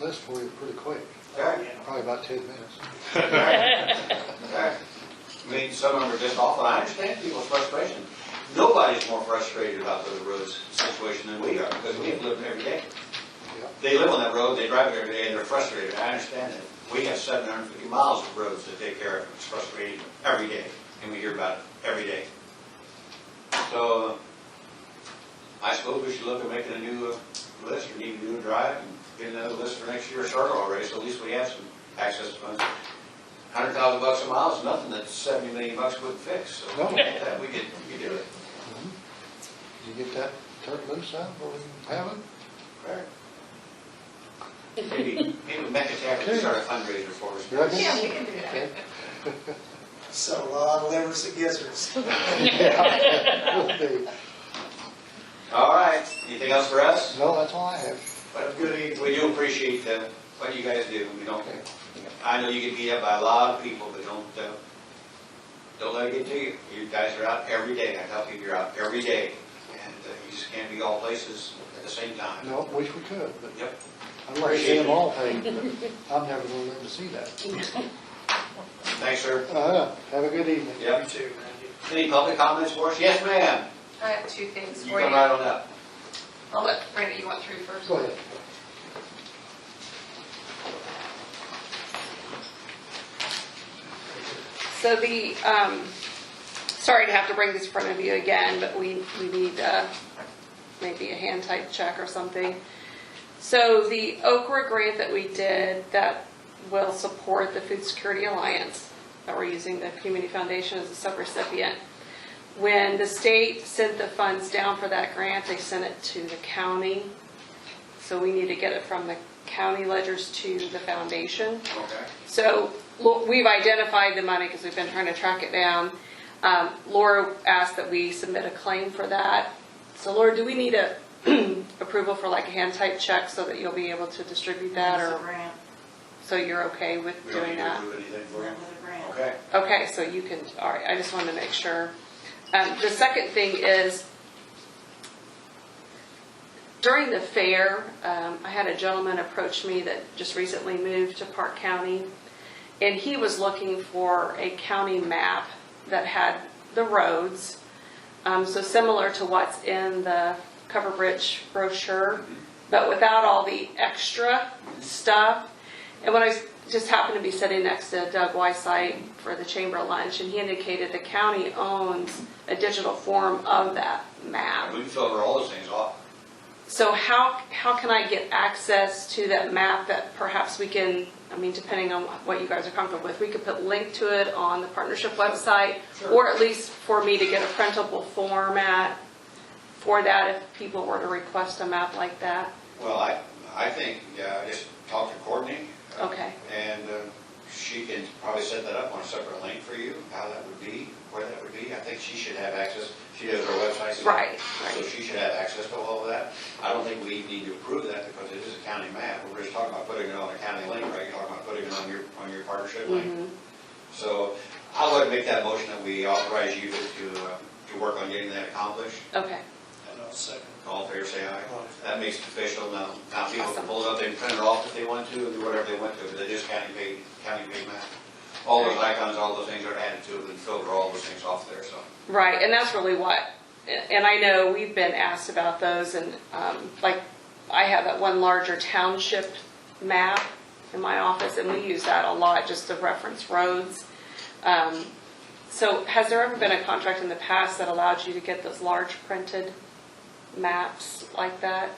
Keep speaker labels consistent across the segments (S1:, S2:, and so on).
S1: list for you pretty quick,
S2: Okay.
S1: probably about ten minutes.
S2: Okay. I mean, some of them are just awful. I understand people's frustration. Nobody's more frustrated about the roads situation than we are, because we have lived every day.
S1: Yep.
S2: They live on that road, they drive it every day, and they're frustrated. I understand that. We have seven hundred and fifty miles of roads to take care of. It's frustrating every day, and we hear about it every day. So, uh, I suppose we should look at making a new uh, list, or need to do a drive, and get another list for next year, start already, so at least we have some access funds. Hundred thousand bucks a mile is nothing that seventy million bucks wouldn't fix, so
S1: No.
S2: we get that, we could, we could do it.
S1: You get that turned loose out, or we can have it?
S2: Maybe, maybe Metcalf could start a fundraiser for us.
S1: You reckon?
S3: Yeah, we can do that.
S1: Okay.
S4: So, uh, a lot of livers and gizzards.
S1: Yeah, will be.
S2: All right, anything else for us?
S1: No, that's all I have.
S2: But good evening. We do appreciate uh, what you guys do, we don't, I know you get beat up by a lot of people, but don't, uh, don't let it get to you. You guys are out every day, I tell people you're out every day, and uh, you just can't be all places at the same time.
S1: No, wish we could, but
S2: Yep.
S1: I'd like to see them all paid, but I'm never gonna live to see that.
S2: Thanks, sir.
S1: Uh, have a good evening.
S2: Yep.
S4: You too, Randy.
S2: Any public comments for us? Yes, ma'am.
S3: I have two things
S2: You
S3: for
S2: come
S3: you.
S2: right on up.
S3: I'll let, Randy, you want through first?
S1: Go ahead.
S5: So the, um, sorry to have to bring this in front of you again, but we, we need, uh, maybe a hand type check or something. So the Okra grant that we did that will support the Food Security Alliance, that we're using the Community Foundation as a subrecipient. When the state sent the funds down for that grant, they sent it to the county. So we need to get it from the county ledgers to the foundation.
S2: Okay.
S5: So lo- we've identified the money because we've been trying to track it down. Um, Laura asked that we submit a claim for that. So Laura, do we need a approval for like a hand type check so that you'll be able to distribute that
S3: It's a
S5: or,
S3: grant,
S5: so you're okay with
S2: We don't need
S5: doing
S2: to
S5: that?
S2: do anything for you.
S3: another grant.
S2: Okay.
S5: Okay, so you can, all right, I just wanted to make sure. Um, The second thing is, during the fair, um, I had a gentleman approach me that just recently moved to Park County, and he was looking for a county map that had the roads. Um, So similar to what's in the Cover Bridge brochure, but without all the extra stuff. And when I s- just happened to be sitting next to Doug Wysite for the chamber lunch, and he indicated the county owns a digital form of that map.
S2: We can filter all those things off.
S5: So how, how can I get access to that map that perhaps we can, I mean, depending on what you guys are comfortable with, we could put link to it on the partnership website?
S2: Sure.
S5: Or at least for me to get a printable format for that if people were to request a map like that?
S2: Well, I, I think, uh, just talk to Courtney. uh,
S5: Okay.
S2: And uh, she can probably set that up on a separate link for you, how that would be, where that would be. I think she should have access, she does her website. so-
S5: Right,
S2: So
S5: right.
S2: she should have access to all of that. I don't think we need to approve that because it is a county map. We're just talking about putting it on a county link, right? You're talking about putting it on your, on your partnership link. So I would make that motion that we authorize you to, uh, to work on getting that accomplished.
S5: Okay,
S4: And I'll second.
S2: All in favor, say aye.
S4: Aye.
S2: That makes it official, now, now people can
S5: Awesome.
S2: pull it up, they can print it off if they want to, and do whatever they want to, but they just county paid, county paid map. All those icons, all those things are added to it, and filter all those things off there, so.
S5: right, and that's really what, and I know we've been asked about those and, um, like, I have that one larger township map in my office and we use that a lot just to reference roads. Um, So has there ever been a contract in the past that allowed you to get those large printed maps like that?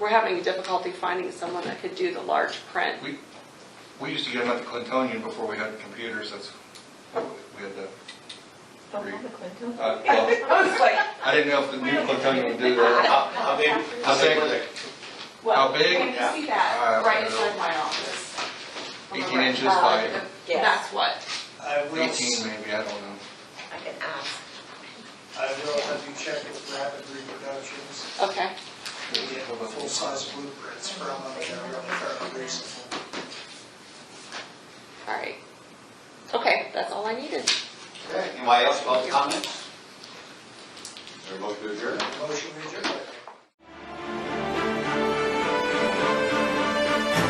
S5: We're having difficulty finding someone that could do the large print.
S6: We, we used to get them at the Clintonian before we had computers, that's, we had the.
S3: Don't have a Clinton.
S6: Uh, well,
S3: I was like,
S6: I didn't know if the new Clintonian would do that.
S2: How, how big, how big were they?
S6: How
S3: well,
S6: big?
S3: can you see
S6: Yeah.
S3: that
S6: Uh,
S3: right inside my office? On the
S6: 18
S3: right.
S6: inches
S3: Uh,
S6: by
S3: the- That's what,
S4: I will,
S6: Eighteen
S4: s-
S6: maybe, I don't know.
S3: I can ask.
S4: I will have you check with Rapid Reproductions,
S5: Okay,
S4: to get full-size blueprints from uh, them, they're really fairly reasonable.
S5: all right. Okay, that's all I needed.
S2: Okay, Anybody else about the comments? They're both to adjourn.